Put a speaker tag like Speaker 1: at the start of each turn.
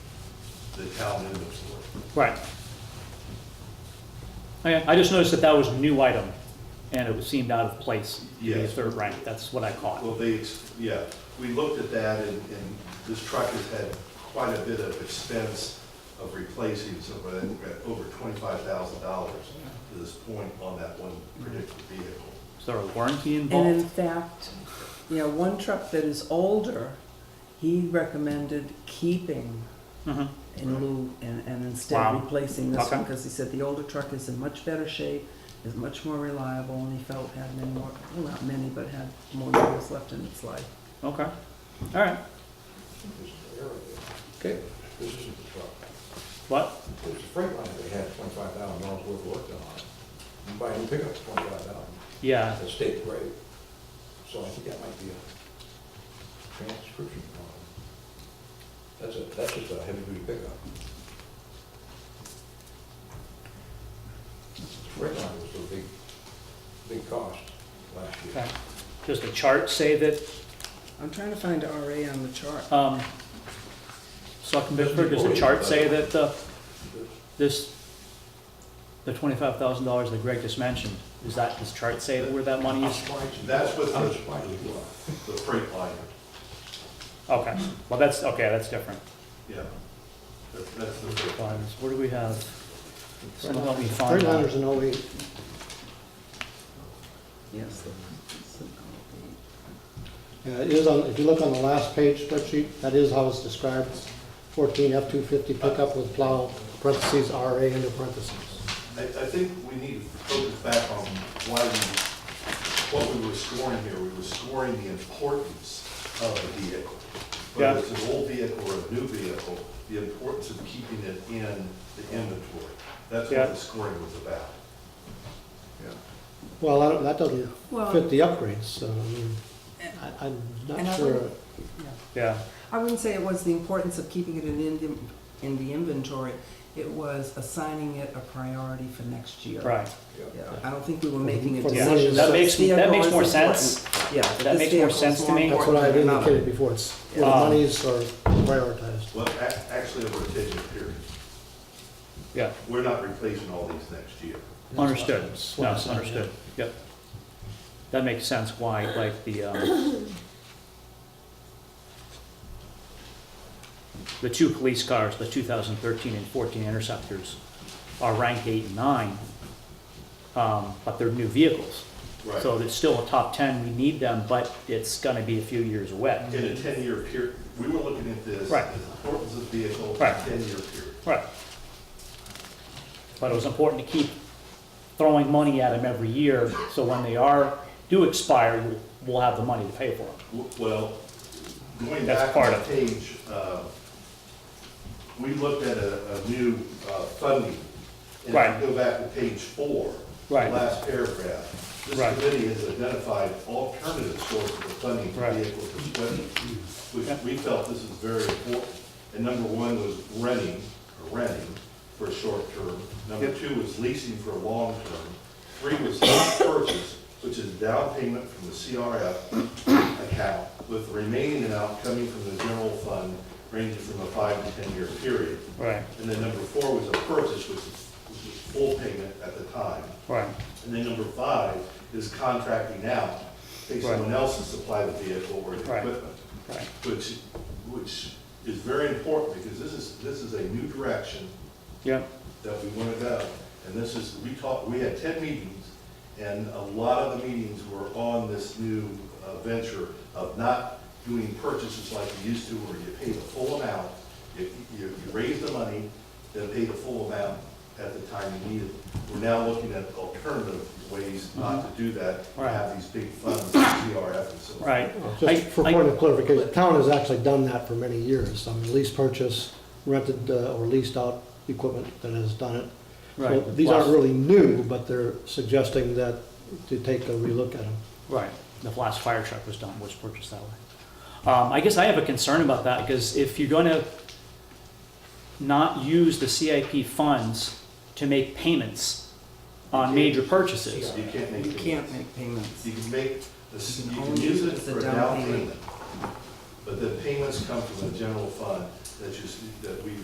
Speaker 1: the town inventory.
Speaker 2: Right. Okay, I just noticed that that was a new item, and it seemed out of place. to be a
Speaker 1: Yes.
Speaker 2: Third rank, that's what I caught.
Speaker 1: Well, they, ex- yeah, we looked at that and, and this truck has had quite a bit of expense of replacing, so we're at we're at over twenty-five thousand dollars to this point on that one particular vehicle.
Speaker 2: Is there a warranty
Speaker 3: And in
Speaker 2: involved?
Speaker 3: fact, you know, one truck that is older, he recommended keeping
Speaker 2: Mhm.
Speaker 3: in lieu and, and instead
Speaker 2: Wow.
Speaker 3: replacing this one,
Speaker 2: Okay.
Speaker 3: because he said the older truck is in much better shape, is much more reliable, and he felt had many more, well, not many, but had more years left in its life.
Speaker 2: Okay, all right.
Speaker 4: This is the area.
Speaker 2: Okay.
Speaker 4: This isn't the truck.
Speaker 2: What?
Speaker 4: It's a freight line they had twenty-five thousand dollars worth of work done on it. You buy a new pickup, twenty-five thousand,
Speaker 2: Yeah,
Speaker 4: that's a state grade. So I think that might be a transcription problem. That's a, that's just a heavy-duty pickup. Freight line was a big, big cost last year.
Speaker 2: okay. Does the chart say that,
Speaker 3: I'm trying to find RA on the chart.
Speaker 2: um, Selectman Bittsburg, does the chart say that, uh, this, the twenty-five thousand dollars that Greg just mentioned, is that, does the chart say where that money is?
Speaker 1: That's what the-
Speaker 4: I'm surprised you are.
Speaker 1: The freight liner,
Speaker 2: Okay, well, that's, okay, that's different.
Speaker 1: yeah. That- That's the freight liner.
Speaker 2: Funds, where do we have? Someone help me find
Speaker 5: Freightliner
Speaker 2: that.
Speaker 5: in oh eight.
Speaker 3: Yes. it's an RA.
Speaker 5: Yeah, it is on, if you look on the last page spreadsheet, that is how it's described. Fourteen F two fifty pickup with plow, parentheses RA into parentheses.
Speaker 1: I, I think we need to focus back on why we, what we were scoring here. We were scoring the importance of a vehicle.
Speaker 2: Yeah.
Speaker 1: Whether it's an old vehicle or a new vehicle, the importance of keeping it in the inventory. That's
Speaker 2: Yeah.
Speaker 1: what the scoring was about.
Speaker 5: Well, I don't- that doesn't
Speaker 3: Well-
Speaker 5: fit the upgrades, so, I mean, I, I'm
Speaker 3: And I
Speaker 5: not sure.
Speaker 3: wouldn't-
Speaker 2: Yeah,
Speaker 3: I wouldn't say it was the importance of keeping it in, the- in the inventory, it was assigning it a priority for next year.
Speaker 2: right.
Speaker 4: Yeah.
Speaker 3: Yeah, I don't think we were making a
Speaker 5: For the
Speaker 2: Yeah,
Speaker 5: money
Speaker 3: decision.
Speaker 2: that
Speaker 3: So
Speaker 2: makes,
Speaker 3: this
Speaker 2: that makes
Speaker 3: vehicle
Speaker 2: more
Speaker 3: is
Speaker 2: sense.
Speaker 3: important. Yeah.
Speaker 2: That
Speaker 3: this
Speaker 2: makes more
Speaker 3: vehicle is
Speaker 2: sense to
Speaker 3: more
Speaker 2: me.
Speaker 5: That's
Speaker 3: important
Speaker 5: what I had
Speaker 3: than another.
Speaker 5: indicated before, it's where the
Speaker 2: Um,
Speaker 5: monies are prioritized.
Speaker 1: Well, ac- actually, over a ten-year period,
Speaker 2: Yeah,
Speaker 1: we're not replacing all these next year.
Speaker 2: understood.
Speaker 5: That's what
Speaker 2: No,
Speaker 5: I said, yeah.
Speaker 2: understood. Yep. That makes sense why, like, the, um, the two police cars, the 2013 and 14 Interceptors are ranked eight and nine, um, but they're new vehicles.
Speaker 1: Right.
Speaker 2: So it's still a top 10, we need them, but it's gonna be a few years away.
Speaker 1: In a ten-year period, we were looking at this,
Speaker 2: Right.
Speaker 1: as the importance of vehicle,
Speaker 2: Right.
Speaker 1: ten-year period.
Speaker 2: Right. But it was important to keep throwing money at them every year, so when they are, do expire, we'll- we'll have the money to pay for them.
Speaker 1: W- Well, going
Speaker 2: That's
Speaker 1: back
Speaker 2: part
Speaker 1: on the
Speaker 2: of
Speaker 1: page, uh, we looked at a, a new uh, funding. And
Speaker 2: Right.
Speaker 1: if you go back to page four, the
Speaker 2: Right.
Speaker 1: last paragraph,
Speaker 2: Right.
Speaker 1: this committee has identified alternative sources of funding for
Speaker 2: Right.
Speaker 1: vehicle disposal,
Speaker 2: Yeah.
Speaker 1: which we felt this is very important. And number one was renting, or renting for a short term. Number
Speaker 2: Yep.
Speaker 1: two was leasing for a long term. Three was lease purchase, which is down payment from the CRF account, with the remaining amount coming from the general fund, ranging from a five to 10-year period.
Speaker 2: Right,
Speaker 1: And then number four was a purchase, which is which is full payment at the time.
Speaker 2: right.
Speaker 1: And then number five is contracting out, take
Speaker 2: Right.
Speaker 1: someone else to supply the vehicle or the
Speaker 2: Right.
Speaker 1: equipment
Speaker 2: Right.
Speaker 1: which, which is very important, because this is, this is a new direction
Speaker 2: Yeah,
Speaker 1: that we want to go. And this is, we talked, we had ten meetings, and a lot of the meetings were on this new uh, venture of not doing purchases like we used to, where you pay the full amount, you, you, you raise the money, then pay the full amount at the time you need it. We're now looking at alternative ways not to do that, and have these big funds, CRF and so on.
Speaker 2: right.
Speaker 5: Just
Speaker 2: I-
Speaker 5: for
Speaker 2: I-
Speaker 5: point of clarification, the town has actually done that for many years. I mean, lease purchase, rented uh, or leased out equipment that has done it. So
Speaker 2: Right.
Speaker 5: These aren't really new, but they're suggesting that to take a relook at them.
Speaker 2: Right, the last fire truck was done, was purchased that way. Um, I guess I have a concern about that, because if you're gonna not use the CIP funds to make payments on major purchases,
Speaker 1: You can't make.
Speaker 3: You
Speaker 1: payments.
Speaker 3: can't make payments.
Speaker 1: You can make, the- you can
Speaker 3: only
Speaker 1: use
Speaker 3: use
Speaker 1: it
Speaker 3: it as a
Speaker 1: for a
Speaker 3: down
Speaker 1: down
Speaker 3: payment.
Speaker 1: payment, but the payments come from the general fund that you, s- that we